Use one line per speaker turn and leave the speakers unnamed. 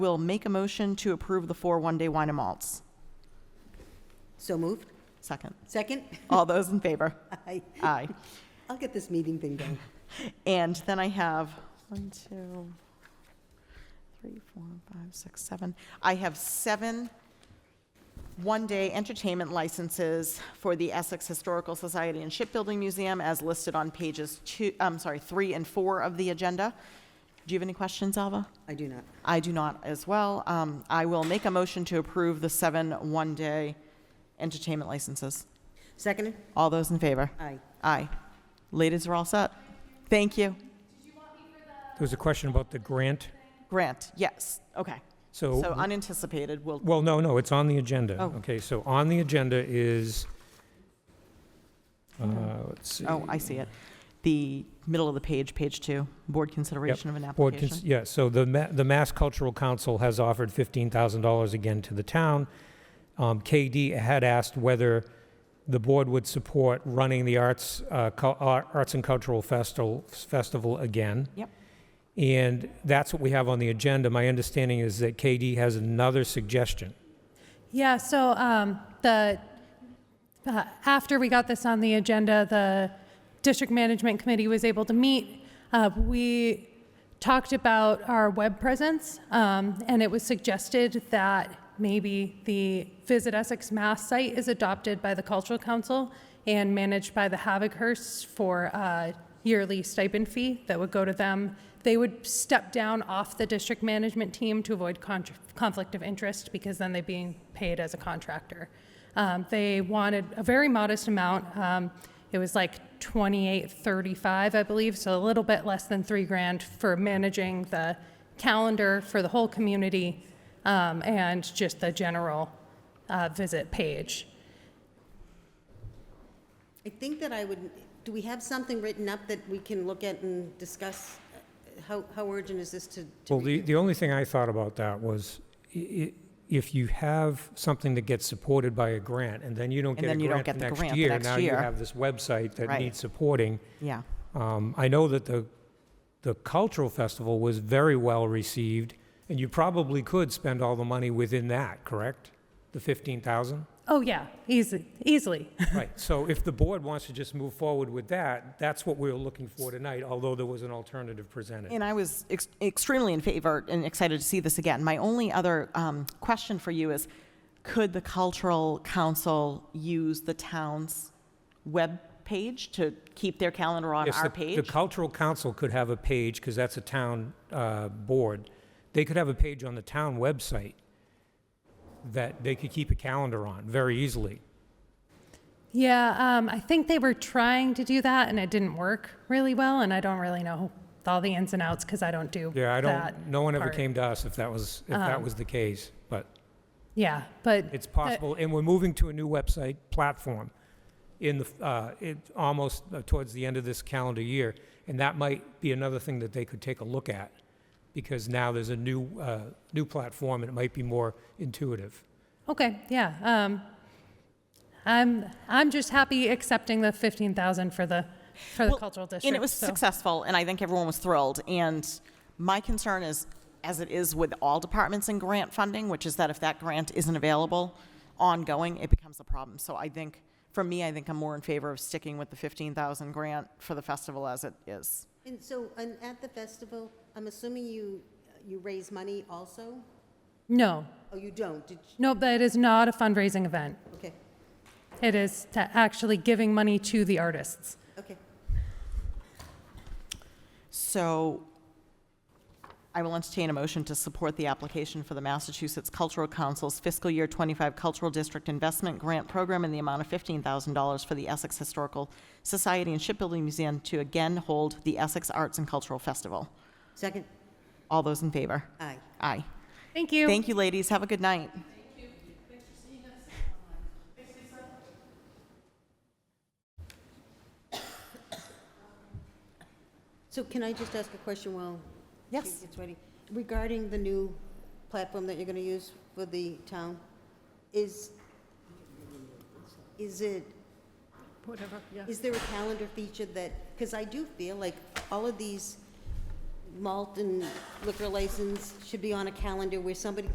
will make a motion to approve the four one-day wine and malts.
So moved.
Second.
Second?
All those in favor?
Aye.
Aye.
I'll get this meeting thing done.
And then I have one, two, three, four, five, six, seven. I have seven one-day entertainment licenses for the Essex Historical Society and Shipbuilding Museum as listed on pages two, I'm sorry, three and four of the agenda. Do you have any questions, Alva?
I do not.
I do not as well. Um, I will make a motion to approve the seven one-day entertainment licenses.
Seconded?
All those in favor?
Aye.
Aye. Ladies are all set. Thank you.
There was a question about the grant.
Grant, yes, okay. So
So,
unanticipated will,
well, no, no, it's on the agenda.
Oh.
Okay, so on the agenda is, uh, let's see.
oh, I see it. The middle of the page, page two, board consideration of an
Board cons-
application.
Yeah, so the, Ma- the Mass Cultural Council has offered $15,000 again to the town. Um, KD had asked whether the board would support running the Arts, uh, Cul- Ar- Arts and Cultural Festival, Festival again.
Yep.
And that's what we have on the agenda. My understanding is that KD has another suggestion.
Yeah, so um, the, uh, after we got this on the agenda, the district management committee was able to meet. Uh, We talked about our web presence, um, and it was suggested that maybe the Visit Essex Mass site is adopted by the Cultural Council and managed by the Havochurst for a yearly stipend fee that would go to them. They would step down off the district management team to avoid contr conflict of interest because then they're being paid as a contractor. Um, they wanted a very modest amount. Um, it was like 2835, I believe, so a little bit less than three grand for managing the calendar for the whole community um, and just the general uh, visit page.
I think that I would, do we have something written up that we can look at and discuss? Uh, How, how urgent is this to? to
Well, the,
review?
the only thing I thought about that was i- i- if you have something that gets supported by a grant and then you don't
And
get a
then you don't
grant
get the
next
grant the
year,
next
now you
year.
have this website that
Right.
needs supporting.
Yeah,
Um, I know that the, the cultural festival was very well received and you probably could spend all the money within that, correct? The 15,000?
Oh, yeah, easy, easily.
Right, so if the board wants to just move forward with that, that's what we were looking for tonight, although there was an alternative presented.
and I was ex- extremely in favor and excited to see this again. My only other um, question for you is, could the cultural council use the town's web page to keep their calendar on
Yes,
our
the- The
page?
cultural council could have a page, because that's a town uh, board. They could have a page on the town website that they could keep a calendar on very easily.
Yeah, um, I think they were trying to do that and it didn't work really well, and I don't really know all the ins and outs because I don't do
Yeah, I
that
don't, no one ever
part.
came to us if that was, if
Um,
that was the case, but
Yeah, but
it's
uh,
possible. And we're moving to a new website platform in the, uh, it, almost uh, towards the end of this calendar year. And that might be another thing that they could take a look at, because now there's a new, uh, new platform and it might be more intuitive.
Okay, yeah. Um, I'm I'm just happy accepting the fifteen thousand for the for the
Well,
cultural district.
And it was
so-
successful, and I think everyone was thrilled. And my concern is, as it is with all departments in grant funding, which is that if that grant isn't available ongoing, it becomes a problem. So I think, for me, I think I'm more in favor of sticking with the 15,000 grant for the festival as it is.
And so, and at the festival, I'm assuming you, you raise money also?
No,
Oh, you don't? Did, you-
no, but it is not a fundraising event.
okay,
It is to actually giving money to the artists.
okay.
So I will entertain a motion to support the application for the Massachusetts Cultural Council's fiscal year 25 Cultural District Investment Grant Program in the amount of $15,000 for the Essex Historical Society and Shipbuilding Museum to again hold the Essex Arts and Cultural Festival.
Second?
All those in favor?
Aye.
Aye.
Thank you.
Thank you, ladies. Have a good night.
So can I just ask a question while? she
Yes.
gets ready? Regarding the new platform that you're going to use for the town, is, is it? Whatever, yeah. Is there a calendar feature that, because I do feel like all of these malt and liquor license should be on a calendar where somebody